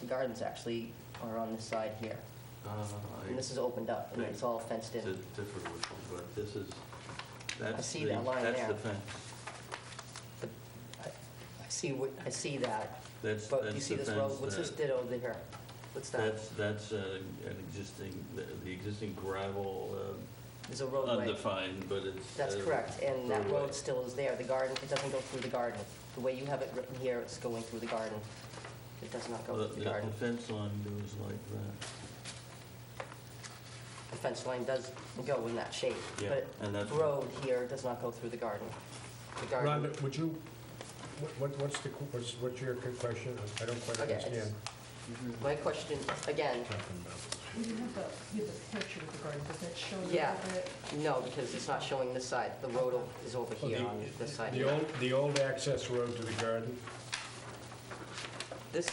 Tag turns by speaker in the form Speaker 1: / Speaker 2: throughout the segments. Speaker 1: The gardens actually are on this side here.
Speaker 2: Uh,
Speaker 1: And this is opened up, and it's all fenced
Speaker 2: To
Speaker 1: in.
Speaker 2: differ which one, but this is, that's.
Speaker 1: see
Speaker 2: the-
Speaker 1: that line
Speaker 2: That's
Speaker 1: there.
Speaker 2: the fence.
Speaker 1: But I I see, what I see that.
Speaker 2: That's-
Speaker 1: But you
Speaker 2: that's
Speaker 1: see
Speaker 2: the
Speaker 1: this road,
Speaker 2: fence
Speaker 1: what's this
Speaker 2: that-
Speaker 1: did over here? What's that?
Speaker 2: That's, that's uh, an existing, the the existing gravel,
Speaker 1: There's a
Speaker 2: uh,
Speaker 1: roadway.
Speaker 2: undefined, but it's.
Speaker 1: That's
Speaker 2: uh,
Speaker 1: correct, and that
Speaker 2: roadway.
Speaker 1: road still is there. The garden, it doesn't go through the garden. The way you have it written here, it's going through the garden. It does not go
Speaker 2: The
Speaker 1: through the
Speaker 2: the
Speaker 1: garden.
Speaker 2: fence line goes like that.
Speaker 1: The fence line does go in that shape.
Speaker 2: Yeah, and that's-
Speaker 1: But road here does not go through the garden. The garden,
Speaker 3: Rhonda, would you, what- what- what's the, what's what's your question? I don't quite
Speaker 1: Okay,
Speaker 3: understand.
Speaker 1: my question, again,
Speaker 3: Talking about.
Speaker 4: We have the, we have the picture of the garden, does that show a
Speaker 1: Yeah.
Speaker 4: little bit?
Speaker 1: no, because it's not showing this side. The road o- is over here on
Speaker 3: The-
Speaker 1: this side.
Speaker 3: The old, the old access road to the garden?
Speaker 1: This,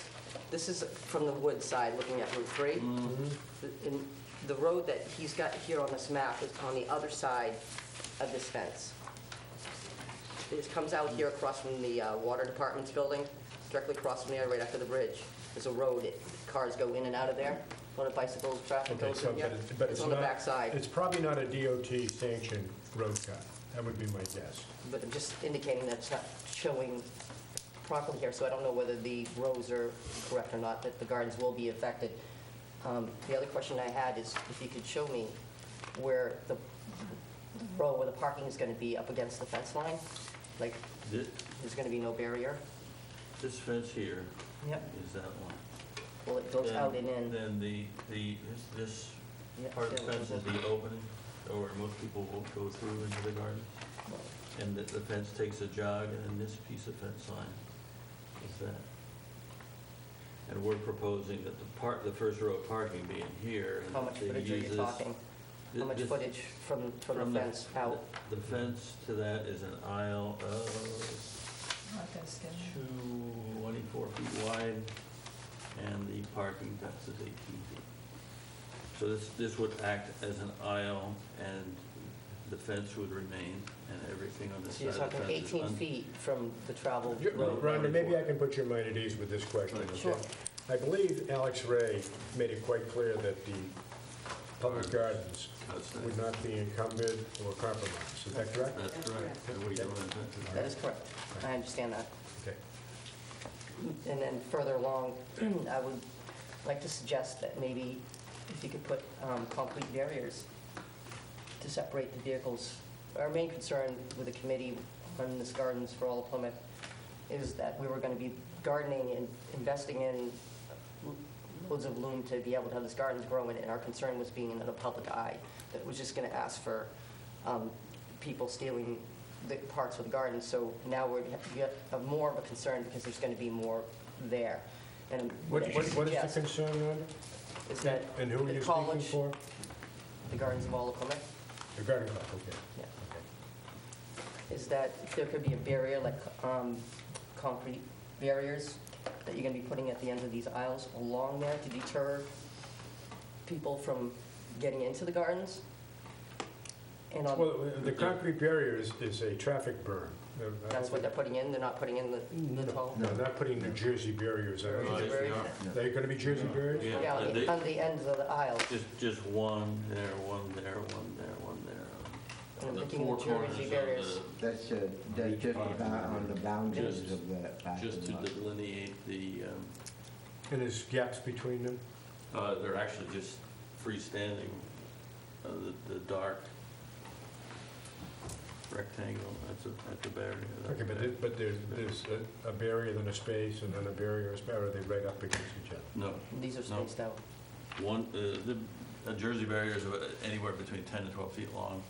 Speaker 1: this is from the wood side, looking at Route 3. The- And the road that he's got here on this map is on the other side of this fence. It comes out here across from the uh, Water Department's building, directly across from there, right after the bridge. There's a road, it- cars go in and out of there, a lot of bicycles, traffic
Speaker 3: Okay,
Speaker 1: goes
Speaker 3: so,
Speaker 1: in
Speaker 3: but
Speaker 1: there.
Speaker 3: it's, but
Speaker 1: It's
Speaker 3: it's
Speaker 1: on the
Speaker 3: not...
Speaker 1: back side,
Speaker 3: It's probably not a DOT sanctioned road cut. That would be my guess.
Speaker 1: but I'm just indicating that it's not showing properly here, so I don't know whether the rows are correct or not, that the gardens will be affected. Um, The other question I had is if you could show me where the row, where the parking is going to be up against the fence line, like,
Speaker 2: Thi-
Speaker 1: there's going to be no barrier?
Speaker 2: This fence here
Speaker 1: Yep.
Speaker 2: is that one.
Speaker 1: Well, it goes
Speaker 2: Then-
Speaker 1: out and in.
Speaker 2: Then the, the, this- this
Speaker 1: Yeah,
Speaker 2: part of the
Speaker 1: there
Speaker 2: fence is
Speaker 1: was a-
Speaker 2: the opening, or most people won't go through into the garden. And the the fence takes a jog, and then this piece of fence line is that. And we're proposing that the part, the first row of parking be in here. and
Speaker 1: How much
Speaker 2: they
Speaker 1: footage are
Speaker 2: use
Speaker 1: you
Speaker 2: this-
Speaker 1: talking?
Speaker 2: thi-
Speaker 1: How much
Speaker 2: this-
Speaker 1: footage from, from the fence out?
Speaker 2: The fence to that is an aisle of
Speaker 4: I'm not gonna scan that.
Speaker 2: 24 feet wide, and the parking depth is 18 feet. So this, this would act as an aisle, and the fence would remain, and everything on this
Speaker 1: So
Speaker 2: side
Speaker 1: you're
Speaker 2: of the
Speaker 1: talking
Speaker 2: fence is
Speaker 1: 18
Speaker 2: un-
Speaker 1: feet from the travel
Speaker 3: You-
Speaker 2: Right.
Speaker 1: road?
Speaker 3: Rhonda, maybe I can put your mind at ease with this question,
Speaker 2: Right.
Speaker 3: okay?
Speaker 1: Sure.
Speaker 3: I believe Alex Ray made it quite clear that the public gardens
Speaker 2: Outside.
Speaker 3: would not be encumbered or compromised. Is that correct?
Speaker 2: That's correct. And we don't intend to-
Speaker 1: That is correct. I understand that.
Speaker 3: Okay.
Speaker 1: And then further along, I would like to suggest that maybe if you could put um, concrete barriers to separate the vehicles. Our main concern with the committee on this Gardens for All of Plymouth is that we were going to be gardening and investing in loads of loom to be able to have this garden to grow in, and our concern was being in the public eye, that it was just going to ask for um, people stealing the parts of the garden. So now we're, we have more of a concern because there's going to be more there. And
Speaker 3: What what- what is
Speaker 1: Yes,
Speaker 3: the concern, Rhonda?
Speaker 1: is that
Speaker 3: And who are
Speaker 1: the
Speaker 3: you speaking
Speaker 1: college-
Speaker 3: for?
Speaker 1: The Gardens of All of Plymouth?
Speaker 3: The garden club, okay.
Speaker 1: Yeah.
Speaker 3: Okay.
Speaker 1: is that there could be a barrier, like um, concrete barriers that you're going to be putting at the ends of these aisles along there to deter people from getting into the gardens? And on-
Speaker 3: Well, the concrete barrier is, is a traffic burn.
Speaker 1: that's what they're putting in, they're not putting in the the tall?
Speaker 3: No, not putting New Jersey barriers
Speaker 1: Or
Speaker 2: Right.
Speaker 3: on.
Speaker 1: is it
Speaker 2: they
Speaker 1: very-
Speaker 2: are.
Speaker 3: They're going to be Jersey barriers?
Speaker 2: Yeah.
Speaker 1: Yeah, on
Speaker 2: They-
Speaker 1: the- on the ends of the aisles.
Speaker 2: Just, just one there, one there, one there, one there.
Speaker 1: I'm
Speaker 2: The
Speaker 1: thinking
Speaker 2: four
Speaker 1: the Jersey
Speaker 2: corners of
Speaker 1: barriers.
Speaker 2: the-
Speaker 5: That's, uh, that's just about on the boundaries of the
Speaker 2: Just
Speaker 5: parking
Speaker 2: to
Speaker 5: lot.
Speaker 2: delineate the, um,
Speaker 3: And there's gaps between them?
Speaker 2: Uh, They're actually just freestanding, uh, the the dark rectangle, that's a, that's a barrier.
Speaker 3: Okay, but there- but there's, there's a- a barrier, then a space, and then a barrier, a space, or are they right up against each other?
Speaker 2: No,
Speaker 1: These are
Speaker 2: No.
Speaker 1: spaced out.
Speaker 2: one, uh, the a Jersey barrier is about anywhere between 10 to 12 feet long,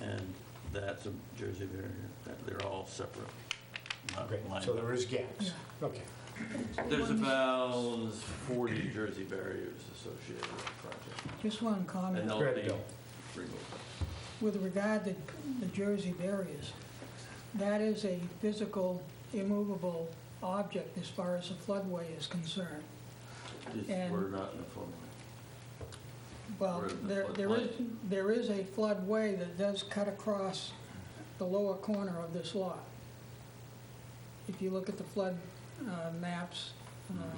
Speaker 2: and that's a Jersey barrier, That- they're all separate. not
Speaker 3: Okay,
Speaker 2: lined
Speaker 3: so
Speaker 2: up.
Speaker 3: there is gaps. Okay.
Speaker 2: There's about 40 Jersey barriers associated with the project.
Speaker 6: Just one
Speaker 2: And
Speaker 6: comment.
Speaker 2: they'll
Speaker 3: Go
Speaker 2: be
Speaker 3: ahead, Bill.
Speaker 2: removed.
Speaker 6: With regard to the Jersey barriers, that is a physical, immovable object as far as the floodway is concerned.
Speaker 2: It's-
Speaker 6: And-
Speaker 2: We're not in a floodplain.
Speaker 6: Well,
Speaker 2: Where the
Speaker 6: there there is, there is a floodway that does cut across the lower corner of
Speaker 2: Mm-hmm.
Speaker 6: this lot. If you look at the flood uh, maps, uh,